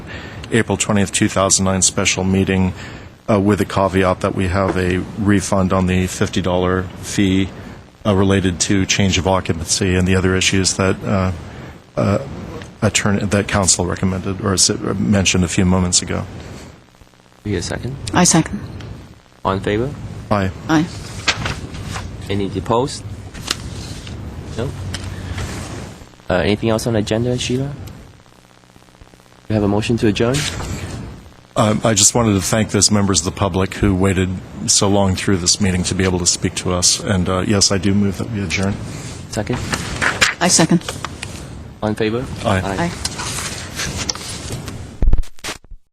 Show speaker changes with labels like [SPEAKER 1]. [SPEAKER 1] April 20th, 2009 special meeting uh, with the caveat that we have a refund on the $50 fee uh, related to change of occupancy and the other issues that uh, uh, attorney, that council recommended or s- mentioned a few moments ago.
[SPEAKER 2] You get a second?
[SPEAKER 3] I second.
[SPEAKER 2] All in favor?
[SPEAKER 1] Aye.
[SPEAKER 3] Aye.
[SPEAKER 2] Any opposed? No? Uh, anything else on the agenda, Sheila? We have a motion to adjourn?
[SPEAKER 1] Um, I just wanted to thank those members of the public who waited so long through this meeting to be able to speak to us. And uh, yes, I do move that we adjourn.
[SPEAKER 2] Second?
[SPEAKER 3] I second.
[SPEAKER 2] All in favor?
[SPEAKER 1] Aye.
[SPEAKER 3] Aye.